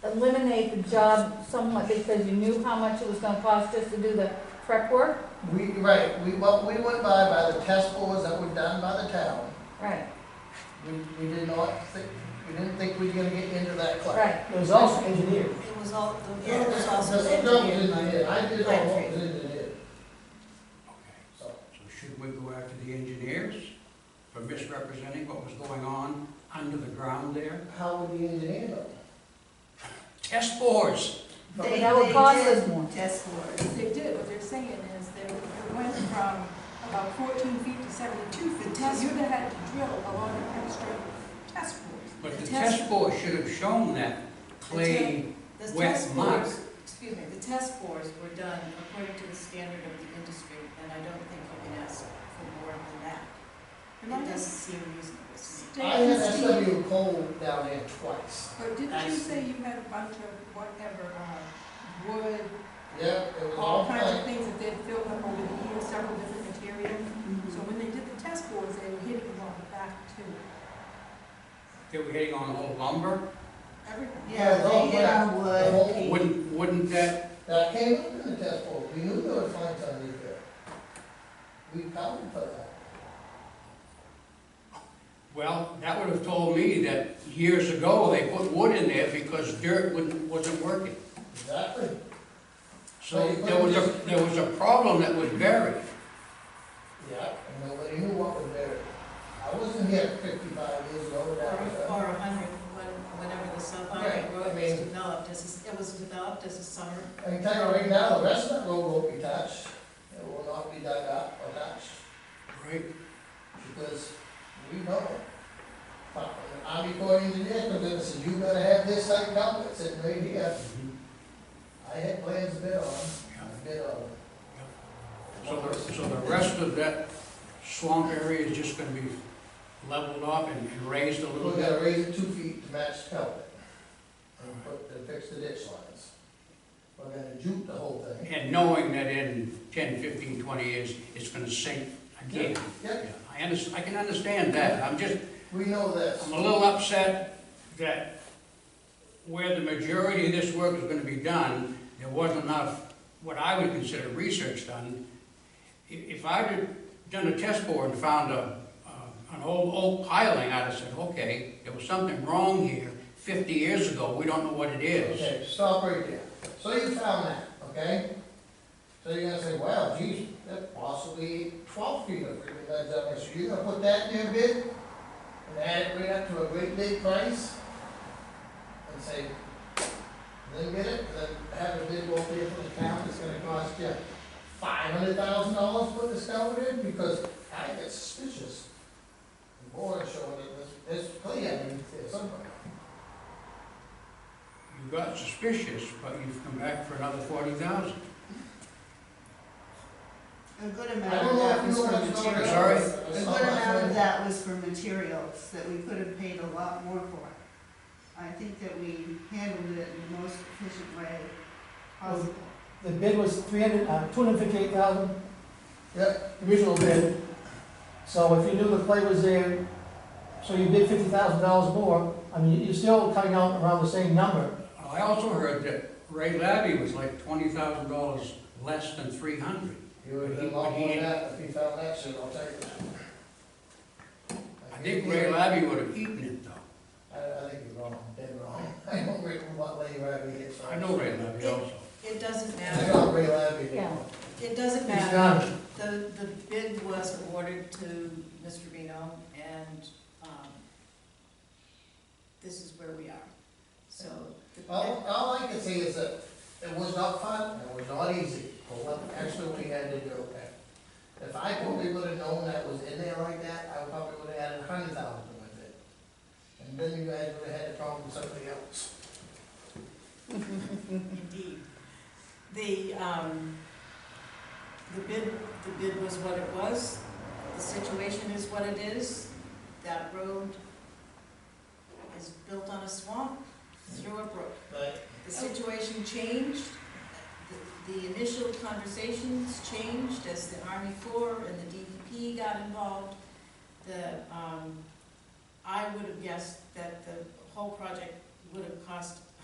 eliminate the job somewhat because you knew how much it was gonna cost us to do the prep work? We, right, we, what we went by, by the test scores that were done by the town, Right, we, we did not think, we didn't think we were gonna get into that class. right. It was also engineered. It was all, the Yeah, road was also the stuff was engineered by. engineered. I did all what was engineered, Okay, so. so should we go after the engineers for misrepresenting what was going on under the ground there? How would the engineer know? Test bores, They- But that would they cost did us more. Test scores. They did, what they're saying is they went from about fourteen feet to seventy-two feet. So You'd have had to drill along the extra test holes. but the The test bores should have shown that clay The Wet test mark. scores, excuse me, the test scores were done according to the standard of the industry, and I don't think you can ask for more than that. It doesn't seem reasonable to I me. had SW Cole down there twice. But didn't you say you had a bunch of whatever, uh, wood Yeah, it was all all kinds of clay. things that they've filled up over the years, several different materials. Mm-hmm. So when they did the test boards, they were hitting them on the back too, they were hitting on old lumber. everything. Yeah, they hit on The wood. whole- they- Wouldn't, wouldn't that, That came up in the test scores, we knew there was fines underneath there. We counted for that. well, that would have told me that years ago, they put wood in there because dirt wouldn't, wasn't working. Exactly. So there was a, there was a problem that was buried. Yeah, and nobody knew what was there. I wasn't here fifty-five years ago, Or that was, uh, or a hundred, when- whenever the Right, South I Road was mean- developed, as, a s- it was developed as a summer. I can tell you right now, the rest of that road won't be touched. It will not be dug up or touched, Right. because we know. But the Army Corps of Engineers comes in and says, you gotta have this site covered, it's in right here. I had plans bid on, I bid on. So the, so the rest of that swamp area is just gonna be leveled up and and raised a little We're bit? gonna raise it two feet to match the cover. And put, and fix the ditch lines. We're gonna juke the whole thing. And knowing that in 10, 15, 20 years, it's gonna sink again. Yep, Yeah, I under, I can understand that, I'm just, we know this. I'm a little upset that where the majority of this work is gonna be done, there wasn't enough, what I would consider research done. I- If I'd have done a test bore and found a, a- an old oak piling, I'd have said, okay, there was something wrong here 50 years ago, we don't know what it is. Okay, stop right there. So you found that, okay? So you're gonna say, wow, geez, that possibly twelve feet of ribbon that's up there, so you're gonna put that in your bid? And add it right up to a great big price? And say, then get it, then have a bid go up there for the town, it's gonna cost you five hundred thousand dollars to put this culvert in, because I get suspicious. The board showing it, this, this clear, I mean, it's somewhere. You got suspicious, but you've come back for another 40,000. A good I amount don't of know that if you was know for what's going on. materials. Sorry? A good amount of that was for materials that we could have paid a lot more for. I think that we handled it in the most efficient way possible. The bid was three hundred, uh, two hundred fifty-eight thousand, Yep, original bid. So if you knew the clay was there, so you bid fifty thousand dollars more, I mean, you're still coming out around the same number. I also heard that Ray Labby was like $20,000 less than 300. you would have lost more than that if you found that shit, I'll tell you that. I think Ray Labby would have eaten it though. I, I think you're wrong, dead wrong. I don't read what Ray Labby gets. I know Ray Labby also. It doesn't I matter, know Ray Labby. did. Yeah. it doesn't He's matter. got it. The, the bid was awarded to Mr. Reno, and, um, this is where we are. So, the- All, all I can say is that it was not fun, and it was not easy, but what, actually we had to do, okay? If I probably would have known that was in there like that, I probably would have added a hundred thousand to my bid. And then you guys would have had a problem with somebody else. indeed, the, um, the bid, the bid was what it was, the situation is what it is, that road is built on a swamp through a brook. But The situation changed, the, the initial conversations changed as the Army Corps and the DEP got involved. The, um, I would have guessed that the whole project would have cost